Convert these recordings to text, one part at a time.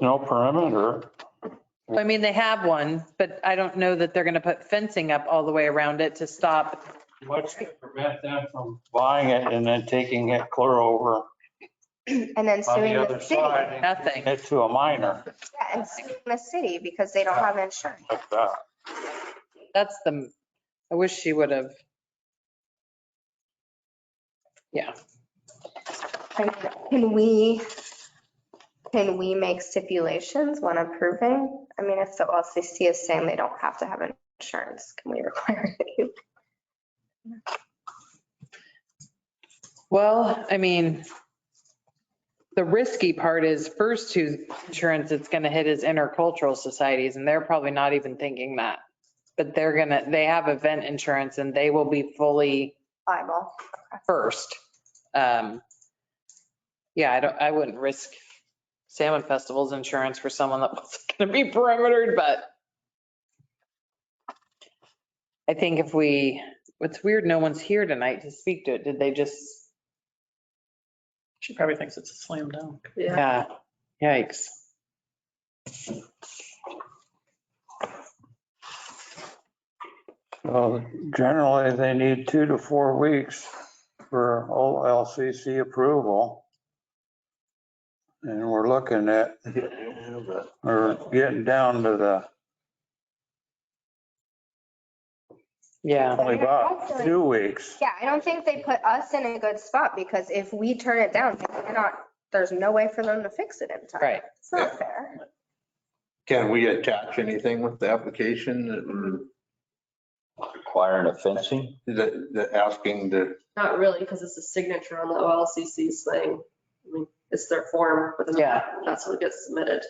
no perimeter. I mean, they have one, but I don't know that they're going to put fencing up all the way around it to stop. What's to prevent them from buying it and then taking it clear over And on then suing the the other city. Yeah, side? and Nothing. It to a minor and suing the city because they don't have insurance. like that. That's the, I wish she would have. Yeah, I mean, Can we, can we make stipulations when approving? I mean, if the LCC is saying they don't have to have insurance, can we require it? well, I mean, the risky part is first whose insurance it's going to hit is intercultural societies, and they're probably not even thinking that. But they're gonna, they have event insurance and they will be fully Liable. first. Um, Yeah, I don't, I wouldn't risk Salmon Festival's insurance for someone that wasn't going to be perimetered, but I think if we, it's weird, no one's here tonight to speak to it. Did they just, She probably thinks it's a slam dunk. yeah, yikes. So generally, they need two to four weeks for OLCC approval. And we're looking at, we're getting down to the Yeah, only about two weeks. Yeah, I don't think they put us in a good spot because if we turn it down, they cannot, there's no way for them to fix it in time. right. It's not fair. Can we attach anything with the application that we're- Requiring a fencing? that, that asking to, Not really, because it's a signature on the OLCC's thing. I mean, it's their form, but then Yeah. that's what gets submitted.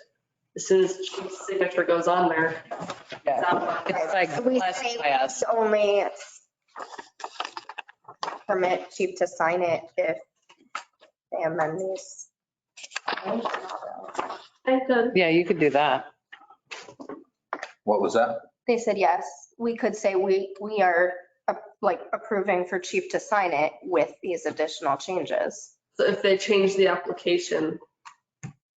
As soon as Chief's signature goes on there. it's Yeah. out. It's like We blessed say by us. it's only permit chief to sign it if they amend these. I could- Yeah, you could do that. what was that? They said, yes, we could say we, we are uh, like approving for chief to sign it with these additional changes. So if they change the application,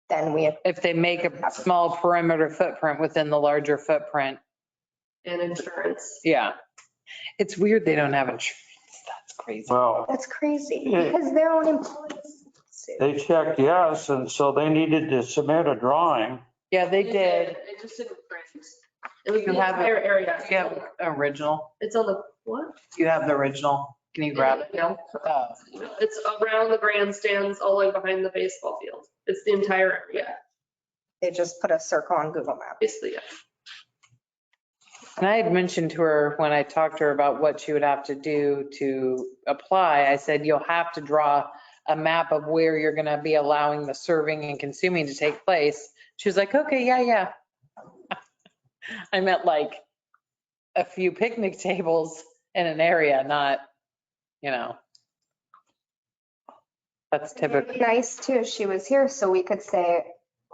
Then we, If they make a small perimeter footprint within the larger footprint, and insurance. yeah. It's weird they don't have insurance. That's crazy. Well, that's crazy Yeah. because their own employees. sue. they checked yes, and so they needed to submit a drawing. Yeah, they did. It just didn't print. It was the You have it- entire area. You have original. It's on the, what? You have the original. Can you grab it? Yeah. Oh, It's around the grandstands, all the way behind the baseball field. It's the entire area, They just put a circle on Google Maps. basically, yeah. And I had mentioned to her when I talked to her about what she would have to do to apply, I said, you'll have to draw a map of where you're going to be allowing the serving and consuming to take place. She was like, okay, yeah, yeah. I meant like a few picnic tables in an area, not, you know. That's It'd typical. be Nice too, if she was here, so we could say,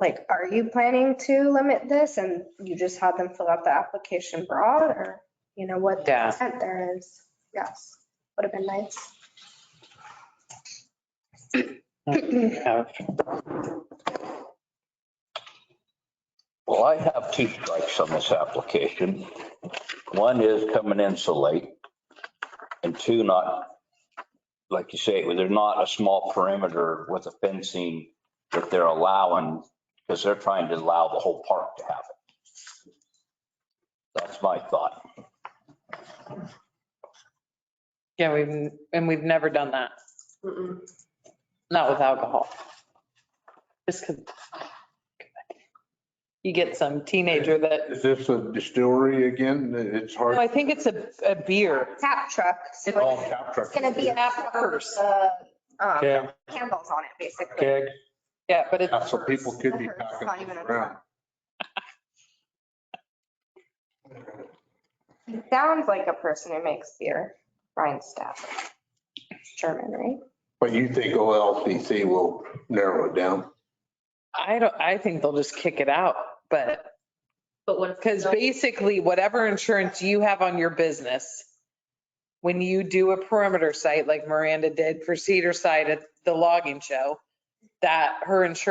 like, are you planning to limit this? And you just had them fill out the application broad or, you know, what the Yeah. intent there is. Yes, would have been nice. Well, I have two strikes on this application. One is coming in so late. And two, not, like you say, they're not a small perimeter with a fencing that they're allowing because they're trying to allow the whole park to have it. That's my thought. Yeah, we've, and we've never done that, Mm-mm. not with alcohol. Just 'cause you get some teenager that, Is this a distillery again? It's no, hard. I think it's a, a beer. Tap truck, so It's- Oh, tap it's truck. gonna be a Tap purse. uh, um, Keg, Candles on it, basically. keg, Yeah, but Yeah, it's, So people could be The hearse, packing not even a around. It Sounds like a person who makes beer, Ryan Staff. German, right? But you think OLCC will narrow it down? I don't, I think they'll just kick it out, but, But what if? because basically whatever insurance you have on your business, when you do a perimeter site like Miranda did for Cedar Side at the logging show, that her insurance